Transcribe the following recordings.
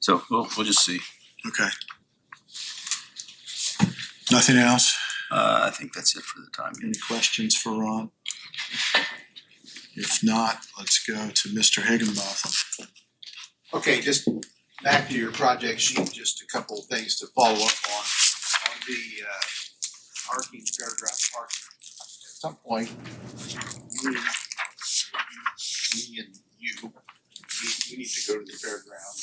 So we'll, we'll just see. Okay. Nothing else? Uh, I think that's it for the time being. Any questions for Ron? If not, let's go to Mr. Higginbotham. Okay, just back to your project sheet, just a couple of things to follow up on, on the uh parking, fairground parking. At some point, we, me and you, we, we need to go to the fairground.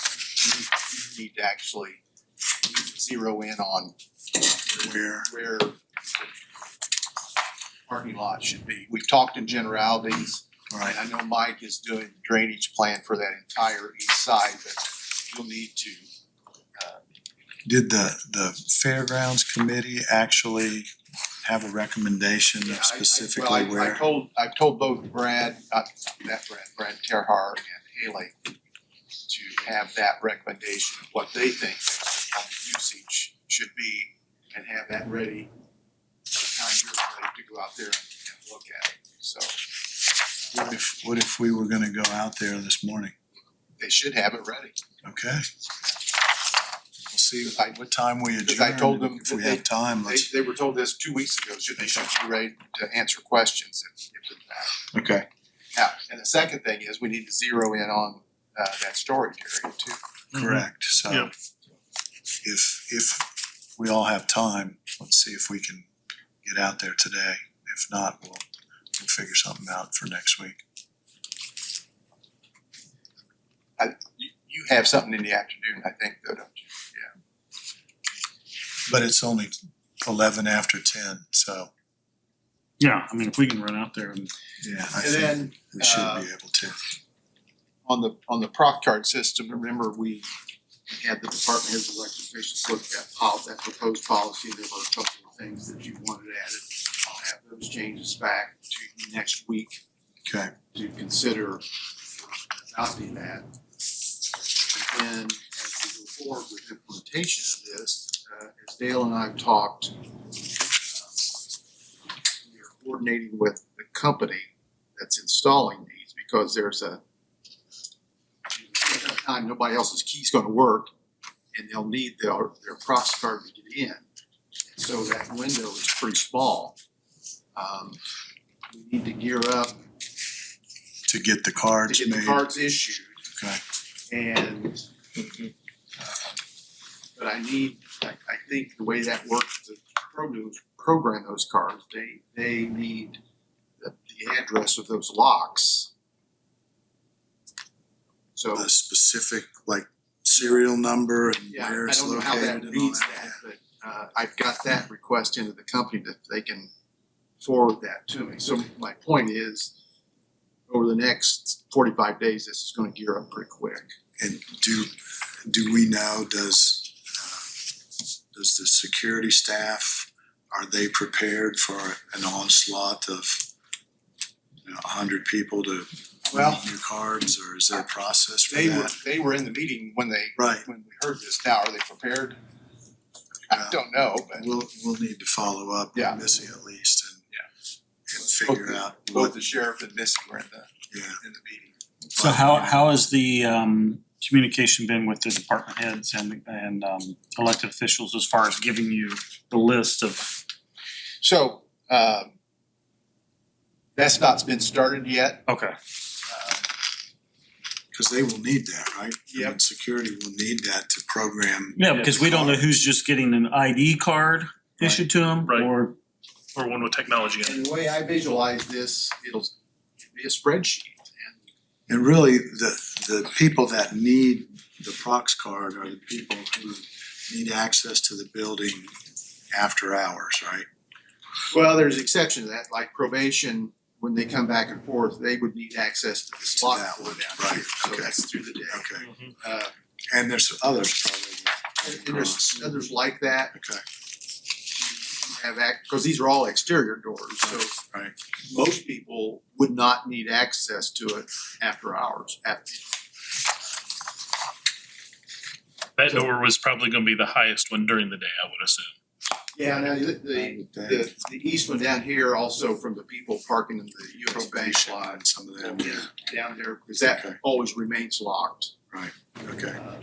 We need to actually zero in on Where, where the parking lot should be. We've talked in generalities, all Right, right, I know Mike is doing drainage plan for that entire east side, but you'll need to, uh, did the, the Fairgrounds Committee actually have a recommendation yeah, I- I- of specifically Well, I, I where? told, I've told both Brad, not that Brad, Brad Terhar and Haley to have that recommendation, of what they think based on the usage should be, and have that ready by the time you're ready to go out there and and look at it, so What if, what if we were gonna go out there this morning? they should have it ready. Okay. We'll see I- what time we Because adjourn. I told them If we that have time, They, let's, they were told this two weeks ago, should, they should be ready to answer questions if, if it's that. okay, Now, and the second thing is we need to zero in on, uh, that storage area too. correct, so. Yeah. If, if we all have time, let's see if we can get out there today. If not, we'll, we'll figure something out for next week. You, you have something in the afternoon, I think, though, don't you? But it's only eleven after ten, so, Yeah, I mean, if we can run out there and yeah, I And think then we should uh, be able to. on the, on the proc card system, remember we had the department heads of elected officials look at pol- that proposed policy. There were a couple of things that you wanted added. I'll have those changes back to you next week. Okay, to consider adopting that. And then as we go forward with implementation of this, uh, as Dale and I have talked, um, we are coordinating with the company that's installing these because there's a at that time, nobody else's key's gonna work and they'll need their, their process card to get in. So that window is pretty small. Um, we need to gear up to get the to cards get the made, cards issued. Okay. And, uh, but I need, I, I think the way that works, to program, program those cards, they, they need the, the address of those locks. So, a specific, like, serial number and yeah, where I it's don't know how located that and all reads that, that. but, uh, I've got that request into the company that they can forward that to me. So my point is, over the next forty-five days, this is gonna gear up pretty quick. And do, do we know, does, uh, does the security staff, are they prepared for an onslaught of, you know, a hundred people to Well- need new cards, or is there a process for They were, that? they were in the meeting when they, Right, when we heard this now, are they prepared? I Yeah. don't know, but we'll, we'll need to follow up Yeah. with Missy at least and and figure out both what, the sheriff and Missy were in the, yeah. in the meeting. so how how has the um communication been with the department heads and and um elected officials as far as giving you the list of So, um, that's not been started yet. okay, Um, Cause they will need that, right? I mean, Yep. Security will need that to program. yeah, because we don't know who's just getting an ID card issued to them Right. or or one with technology in it. And the way I visualize this, it'll be a spreadsheet and And really, the, the people that need the Prox card are the people who need access to the building after hours, right? Well, there's exception to that, like probation, when they come back and forth, they would need access to this lock that door one, down here, right, so okay. that's through the day. Okay, Mm-hmm. Uh, and there's others probably, and- and there's others like that, okay. have act, because these are all exterior doors, so. Right. Most people would not need access to it after hours, after. That door was probably going to be the highest one during the day, I would assume. Yeah, now, the, the, the, the east one down here also from the people parking in the US Bank Probation lot and some of them, yeah, down there, because that Okay. always remains locked. okay. Uh,